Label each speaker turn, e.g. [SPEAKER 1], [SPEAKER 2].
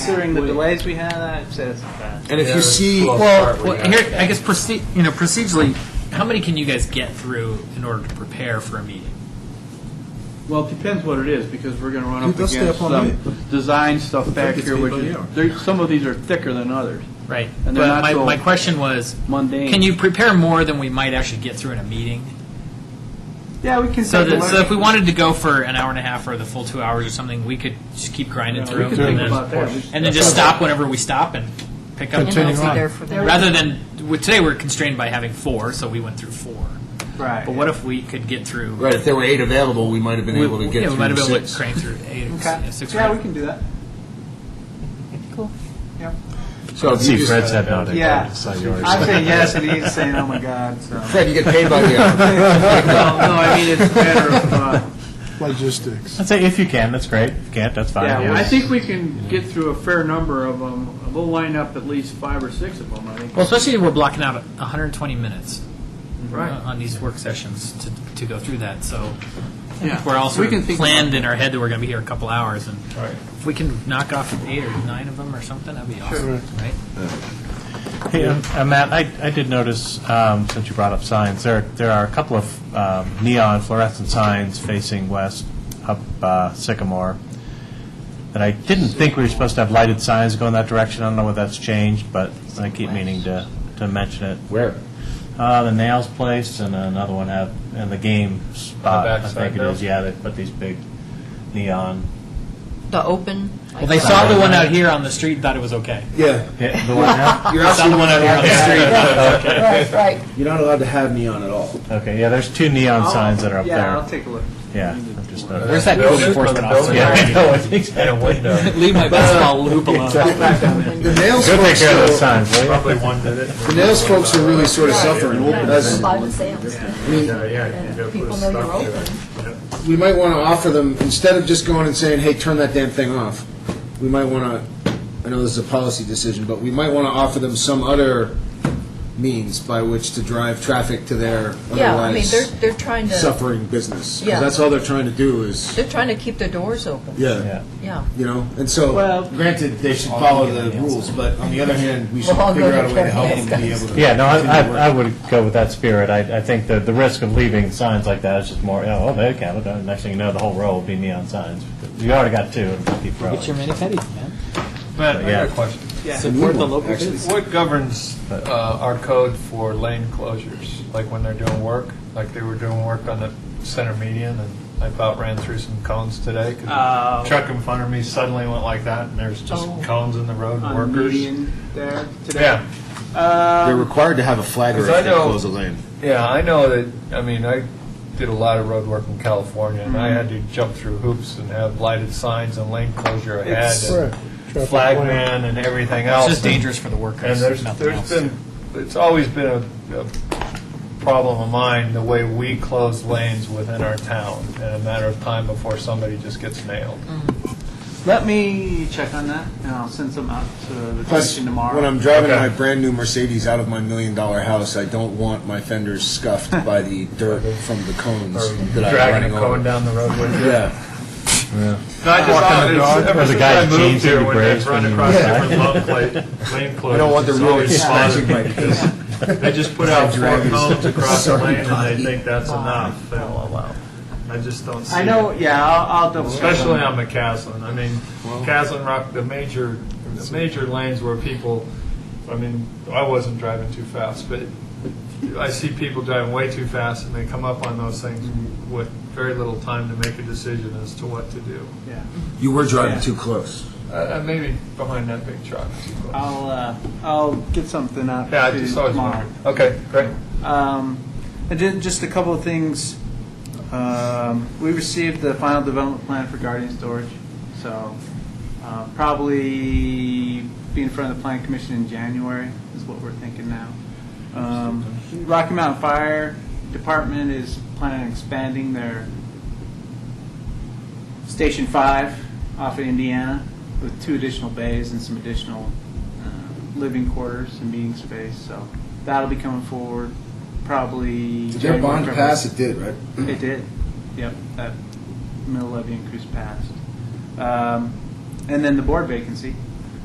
[SPEAKER 1] Considering the delays we had, I'd say that's not bad.
[SPEAKER 2] And if
[SPEAKER 3] Yeah,
[SPEAKER 2] you
[SPEAKER 3] it's
[SPEAKER 2] see,
[SPEAKER 3] close.
[SPEAKER 4] Well,
[SPEAKER 3] Well,
[SPEAKER 4] well, here, I guess proce- you know procedurally, how many can you guys get through in order to prepare for a meeting?
[SPEAKER 5] Well, it depends what it is, because we're gonna run
[SPEAKER 2] Dude,
[SPEAKER 5] up
[SPEAKER 2] they'll stay
[SPEAKER 5] against
[SPEAKER 2] up all
[SPEAKER 5] some design stuff back
[SPEAKER 2] it's
[SPEAKER 5] here,
[SPEAKER 2] made
[SPEAKER 5] which
[SPEAKER 2] by the
[SPEAKER 5] is,
[SPEAKER 2] hour.
[SPEAKER 5] there, some of these are thicker than others,
[SPEAKER 4] Right.
[SPEAKER 5] And they're
[SPEAKER 4] but
[SPEAKER 5] not
[SPEAKER 4] my,
[SPEAKER 5] so
[SPEAKER 4] my question was,
[SPEAKER 5] mundane.
[SPEAKER 4] can you prepare more than we might actually get through in a meeting?
[SPEAKER 1] Yeah, we can.
[SPEAKER 4] So,
[SPEAKER 1] take a
[SPEAKER 4] that, so
[SPEAKER 1] look.
[SPEAKER 4] if we wanted to go for an hour and a half or the full two hours or something, we could just keep grinding
[SPEAKER 5] Yeah,
[SPEAKER 4] through
[SPEAKER 5] we could
[SPEAKER 4] and,
[SPEAKER 5] think
[SPEAKER 4] then,
[SPEAKER 5] about that. We should-
[SPEAKER 4] and then just stop whenever we stop and pick up.
[SPEAKER 6] And they'll be there for the-
[SPEAKER 4] Rather than well, today, we're constrained by having four, so we went through four.
[SPEAKER 1] right.
[SPEAKER 4] But what if we could get through?
[SPEAKER 2] right, if there were eight available, we might have been
[SPEAKER 4] We,
[SPEAKER 2] able to
[SPEAKER 4] yeah,
[SPEAKER 2] get
[SPEAKER 4] we
[SPEAKER 2] through
[SPEAKER 4] might have been able to
[SPEAKER 2] six.
[SPEAKER 4] crank through eight or
[SPEAKER 1] Okay.
[SPEAKER 4] six. or
[SPEAKER 1] yeah,
[SPEAKER 4] eight.
[SPEAKER 1] we can do that.
[SPEAKER 6] Cool.
[SPEAKER 1] Yeah.
[SPEAKER 2] So if you
[SPEAKER 3] See,
[SPEAKER 2] just-
[SPEAKER 3] Fred's had nodding.
[SPEAKER 1] Yeah.
[SPEAKER 3] I saw yours.
[SPEAKER 1] I'm saying yes, and he's saying oh my god. So.
[SPEAKER 2] Fred, you get paid by the hour.
[SPEAKER 5] No, no, I mean, it's a matter of, uh,
[SPEAKER 6] Logistics.
[SPEAKER 3] I'd say if you can, that's great. If you can't, that's fine.
[SPEAKER 5] yeah, I think we can get through a fair number of them. We'll line up at least five or six of them, I think.
[SPEAKER 4] Well, especially if we're blocking out 120 minutes uh,
[SPEAKER 5] Right.
[SPEAKER 4] on these work sessions to, to go through that. So
[SPEAKER 5] Yeah.
[SPEAKER 4] we're also
[SPEAKER 5] We can think
[SPEAKER 4] planned
[SPEAKER 5] about
[SPEAKER 4] in our head that we're going to be here a couple hours, and if we can knock off eight or nine of them or something, that'd be awesome, right?
[SPEAKER 3] Hey, um, uh, Matt, I, I did notice, um, since you brought up signs, there, there are a couple of um, neon fluorescent signs facing west up uh, Sycamore that I didn't think we were supposed to have lighted signs going that direction. I don't know whether that's changed, but I keep meaning to, to mention it.
[SPEAKER 2] Where?
[SPEAKER 3] Uh, the nails place and another one have, and the game spot, I think it is, yeah, they put these big neon.
[SPEAKER 6] The open.
[SPEAKER 4] Well, they saw the one out here on the street, and thought it was okay.
[SPEAKER 7] Yeah,
[SPEAKER 3] Yeah, the one now?
[SPEAKER 4] You're saw the one out here on the street. and thought it was okay.
[SPEAKER 6] Right, right.
[SPEAKER 7] you're not allowed to have neon at all.
[SPEAKER 3] Okay, yeah, there's two neon signs that are up
[SPEAKER 1] Oh, yeah,
[SPEAKER 3] there.
[SPEAKER 1] I'll take a look.
[SPEAKER 3] Yeah, I'm just noticing.
[SPEAKER 4] Where's that code enforcement officer?
[SPEAKER 3] Yeah, no, it's exactly.
[SPEAKER 4] Leave my baseball hoop alone.
[SPEAKER 2] The nails
[SPEAKER 3] Go take
[SPEAKER 2] folks,
[SPEAKER 3] care of those
[SPEAKER 2] are-
[SPEAKER 3] signs, will you?
[SPEAKER 2] the nails folks are really sort of suffering. That's-
[SPEAKER 6] Live and sales. And People know you're open.
[SPEAKER 2] We might want to offer them, instead of just going and saying, hey, turn that damn thing off, we might want to, I know this is a policy decision, but we might want to offer them some other means by which to drive traffic to their
[SPEAKER 6] Yeah, I mean, they're,
[SPEAKER 2] otherwise
[SPEAKER 6] they're trying to,
[SPEAKER 2] suffering business. 'Cause
[SPEAKER 6] Yeah.
[SPEAKER 2] that's all they're trying to do is,
[SPEAKER 6] they're trying to keep their doors open,
[SPEAKER 2] yeah.
[SPEAKER 3] Yeah.
[SPEAKER 6] yeah.
[SPEAKER 2] you know, and so,
[SPEAKER 1] Well-
[SPEAKER 2] granted, they should follow the rules, but on the other hand, we should
[SPEAKER 6] Well, I'll
[SPEAKER 2] figure
[SPEAKER 6] go
[SPEAKER 2] out a way to
[SPEAKER 6] to
[SPEAKER 2] help them be
[SPEAKER 6] Kevin.
[SPEAKER 2] able to.
[SPEAKER 3] Yeah, no, I,
[SPEAKER 2] continue
[SPEAKER 3] I I
[SPEAKER 2] working.
[SPEAKER 3] would go with that spirit. I, I think the, the risk of leaving signs like that is just more, you know, oh, they can, but next thing you know, the whole row will be neon signs. You already got two, and keep rolling.
[SPEAKER 4] Get your mini petties, man.
[SPEAKER 8] Matt, I
[SPEAKER 3] Yeah.
[SPEAKER 8] got a question.
[SPEAKER 1] Yeah.
[SPEAKER 2] Support the local
[SPEAKER 8] What governs uh, our code for lane closures? Like when they're doing work, like they were doing work on the center median, and I about ran through some cones today. 'cause
[SPEAKER 1] Uh,
[SPEAKER 8] a Truck in front of me suddenly went like that, and there's just
[SPEAKER 6] Oh.
[SPEAKER 8] cones in the road, and
[SPEAKER 1] on
[SPEAKER 8] workers.
[SPEAKER 1] median there today.
[SPEAKER 8] Yeah,
[SPEAKER 4] Um,
[SPEAKER 2] They're required to have a flagger
[SPEAKER 8] Because I
[SPEAKER 2] if they
[SPEAKER 8] know-
[SPEAKER 2] close a lane.
[SPEAKER 8] yeah, I know that, I mean, I did a lot of road work in California, and I
[SPEAKER 1] Mm-hmm.
[SPEAKER 8] had to jump through hoops and have lighted signs and lane closure ahead, and flagman and everything else.
[SPEAKER 4] It's just
[SPEAKER 8] and-
[SPEAKER 4] dangerous for the
[SPEAKER 8] And
[SPEAKER 4] workers.
[SPEAKER 8] there's,
[SPEAKER 4] nothing
[SPEAKER 8] there's
[SPEAKER 4] else.
[SPEAKER 8] been, it's always been a, a problem of mine, the way we close lanes within our town in a matter of time before somebody just gets nailed.
[SPEAKER 1] Let me check on that, and I'll send some out to the
[SPEAKER 2] Plus,
[SPEAKER 1] commission tomorrow.
[SPEAKER 2] when I'm driving
[SPEAKER 8] Okay.
[SPEAKER 2] my brand-new Mercedes out of my million-dollar house, I don't want my fenders scuffed by the dirt from the cones that I'm
[SPEAKER 8] Dragging
[SPEAKER 2] running
[SPEAKER 8] a cone
[SPEAKER 2] over.
[SPEAKER 8] down the road with you.
[SPEAKER 2] Yeah,
[SPEAKER 8] No, I just thought it's, ever
[SPEAKER 3] There's a
[SPEAKER 8] since
[SPEAKER 3] guy
[SPEAKER 8] I
[SPEAKER 3] in
[SPEAKER 8] moved
[SPEAKER 3] jeans
[SPEAKER 8] here,
[SPEAKER 3] and
[SPEAKER 8] when
[SPEAKER 3] grays
[SPEAKER 8] they've run
[SPEAKER 3] when you
[SPEAKER 8] across
[SPEAKER 3] move
[SPEAKER 8] different lane cla- lane closures.
[SPEAKER 2] I don't want the
[SPEAKER 8] it's
[SPEAKER 2] road
[SPEAKER 8] always
[SPEAKER 2] smashing
[SPEAKER 8] bothered
[SPEAKER 2] my face.
[SPEAKER 8] me. They just put out four
[SPEAKER 2] Dragons.
[SPEAKER 8] cones across the
[SPEAKER 2] Sorry,
[SPEAKER 8] lane and
[SPEAKER 2] buddy.
[SPEAKER 8] they think that's enough, they'll allow. I just don't see it.
[SPEAKER 1] I know. Yeah, I'll, I'll double. check on
[SPEAKER 8] Especially
[SPEAKER 1] that.
[SPEAKER 8] on McCaslin. I mean, McCaslin Rock, the major, the major lanes where people, I mean, I wasn't driving too fast, but I see people driving way too fast and they come up on those things with very little time to make a decision as to what to do.
[SPEAKER 1] Yeah.
[SPEAKER 2] you were driving
[SPEAKER 1] Yeah.
[SPEAKER 2] too close.
[SPEAKER 8] Uh, maybe behind that big truck.
[SPEAKER 1] I'll uh, I'll get something out
[SPEAKER 8] Yeah, I
[SPEAKER 1] to you
[SPEAKER 8] just always
[SPEAKER 1] tomorrow.
[SPEAKER 8] wondered. Okay, great.
[SPEAKER 1] Um, and then just a couple of things. Um, we received the final development plan for Guardian Storage, so uh, probably be in front of the Plan Commission in January is what we're thinking now. Um, Rocky Mountain Fire Department is planning on expanding their Station Five off of Indiana with two additional bays and some additional uh, living quarters and meeting space. So that'll be coming forward probably.
[SPEAKER 2] Did your
[SPEAKER 1] January,
[SPEAKER 2] bond
[SPEAKER 1] February.
[SPEAKER 2] pass? It did, right?
[SPEAKER 1] It did. Yep, that mill levy increase passed. Um, and then the board vacancy.